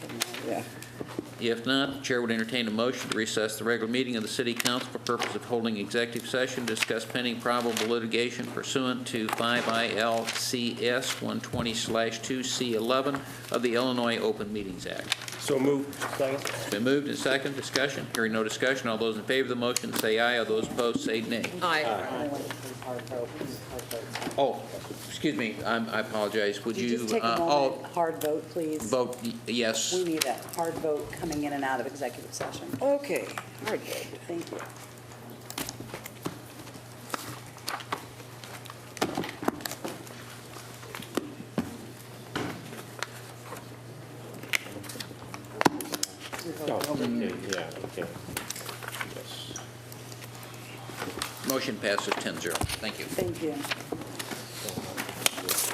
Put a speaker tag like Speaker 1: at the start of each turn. Speaker 1: Yeah.
Speaker 2: If not, the Chair would entertain a motion to recess the regular meeting of the City Council for purpose of holding executive session, to discuss pending probable litigation pursuant to 5 ILCS 120/2C11 of the Illinois Open Meetings Act.
Speaker 3: So moved. Second.
Speaker 2: It's been moved and second, discussion. Hearing no discussion, all those in favor of the motion say aye, all those opposed say nay.
Speaker 4: Aye.
Speaker 1: I went from hard vote to hard vote.
Speaker 2: Oh, excuse me, I'm- I apologize, would
Speaker 1: Could you
Speaker 2: you
Speaker 1: just take
Speaker 2: uh,
Speaker 1: a
Speaker 2: all
Speaker 1: moment, hard vote, please?
Speaker 2: vote y- yes?
Speaker 1: We need a hard vote coming in and out of executive session.
Speaker 4: Okay, all right.
Speaker 1: Thank you.
Speaker 3: Oh, okay, yeah, okay. Yes.
Speaker 2: Motion passes 10-0. Thank you.
Speaker 1: Thank you.